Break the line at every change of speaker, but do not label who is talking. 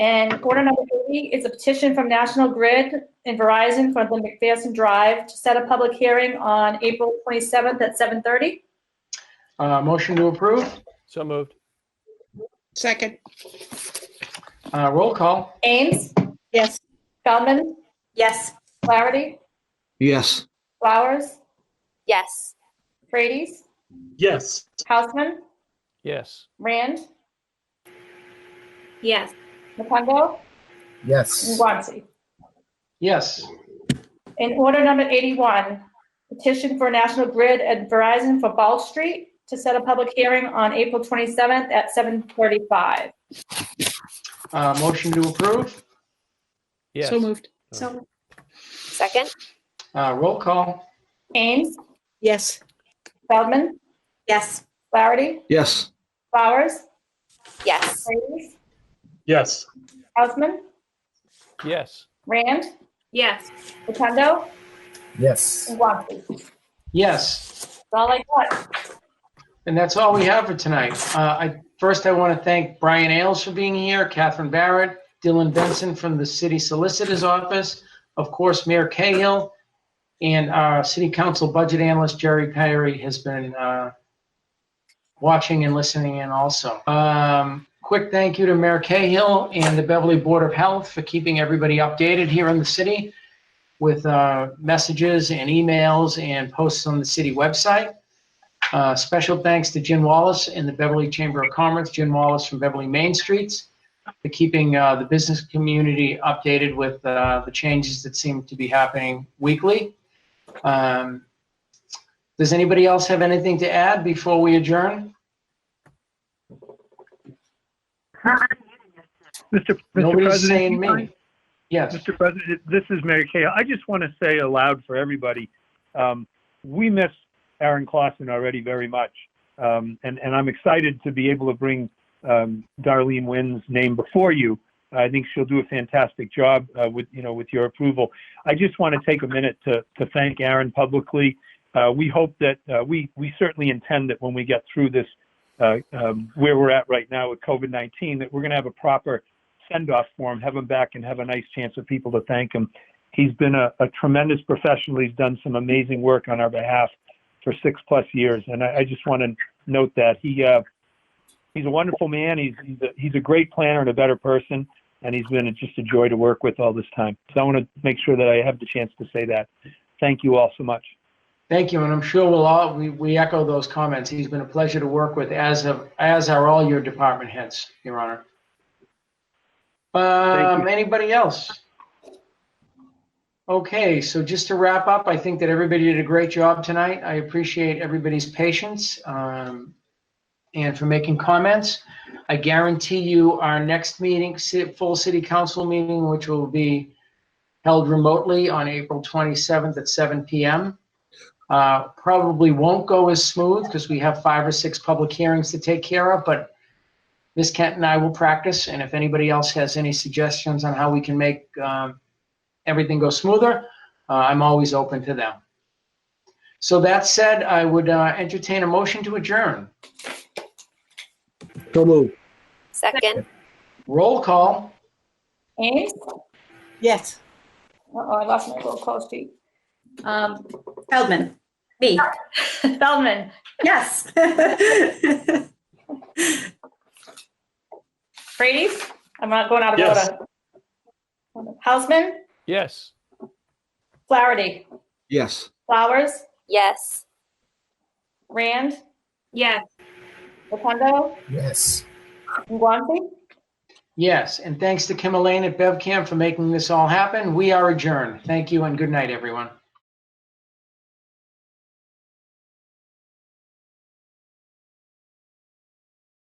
And order number 80 is a petition from National Grid and Verizon for the McPherson Drive to set a public hearing on April 27th at 7:30.
Uh, Motion to approve.
So moved.
Second,
Uh, Roll call.
Ames,
yes.
Feldman,
Yes.
Flaherty,
yes,
Flowers,
Yes.
Frady's,
yes,
Houseman,
Yes.
Rand,
Yes.
Mapungo, and
yes,
Guanxi.
Yes.
In order number 81, petition for National Grid and Verizon for Ball Street to set a public hearing on April 27th at 7:45.
Uh, Motion to approve.
Yes.
So moved.
So. Second?
Uh, Roll call.
Ames,
Yes.
Feldman,
Yes.
Flaherty,
yes,
Flowers,
Yes.
Frady's,
yes,
Houseman,
Yes.
Rand,
Yes.
Rotundo,
yes.
and Guanxi. That's
Yes.
all I got.
And that's all we have for tonight. Uh, I, first, I want to thank Brian Ailes for being here, Catherine Barrett, Dylan Benson from the City Solicitor's Office, of course, Mayor Cahill, and our City Council Budget Analyst, Jerry Perry, has been uh, watching and listening in also. Um, Quick thank you to Mayor Cahill and the Beverly Board of Health for keeping everybody updated here in the city with uh, messages and emails and posts on the city website. Uh, Special thanks to Jim Wallace and the Beverly Chamber of Commerce, Jim Wallace from Beverly Main Streets, for keeping uh, the business community updated with uh, the changes that seem to be happening weekly. Um, Does anybody else have anything to add before we adjourn?
Mr. Mr.
Nobody's saying
President,
me. Yes,
Mr. President, this is Mayor Cahill. I just want to say aloud for everybody, um, we miss Aaron Clausen already very much. Um, and, and I'm excited to be able to bring um, Darlene Wynn's name before you. I think she'll do a fantastic job uh, with, you know, with your approval. I just want to take a minute to, to thank Aaron publicly. Uh, we hope that uh, we, we certainly intend that when we get through this, uh, um, where we're at right now with COVID 19, that we're going to have a proper send off for him, have him back, and have a nice chance of people to thank him. He's been a, a tremendous professional. He's done some amazing work on our behalf for six plus years, and I, I just want to note that he uh, he's a wonderful man. He's he's a, he's a great planner and a better person, and he's been just a joy to work with all this time. So I want to make sure that I have the chance to say that. Thank you all so much.
thank you, and I'm sure we'll all, we we echo those comments. He's been a pleasure to work with, as of, as are all your department heads, Your Honor.
Thank
Um,
you.
anybody else? Okay, so just to wrap up, I think that everybody did a great job tonight. I appreciate everybody's patience um, and for making comments. I guarantee you our next meeting, ci- full city council meeting, which will be held remotely on April 27th at 7 PM, uh, probably won't go as smooth because we have five or six public hearings to take care of, but Ms. Kent and I will practice, and if anybody else has any suggestions on how we can make um, everything go smoother, uh, I'm always open to them. So that said, I would uh, entertain a motion to adjourn.
so move,
Second?
Roll call.
Ames,
Yes.
uh-oh, I lost my little call sheet. Um,
Feldman? Me?
Feldman,
Yes.
Frady's, I'm not going out of
Yes.
order. Houseman,
Yes.
Flaherty,
yes.
Flowers,
Yes.
Rand,
Yes.
Rotundo,
yes.
and Guanxi.
Yes, and thanks to Kim Elaine at BevCamp for making this all happen. We are adjourned. Thank you and good night, everyone.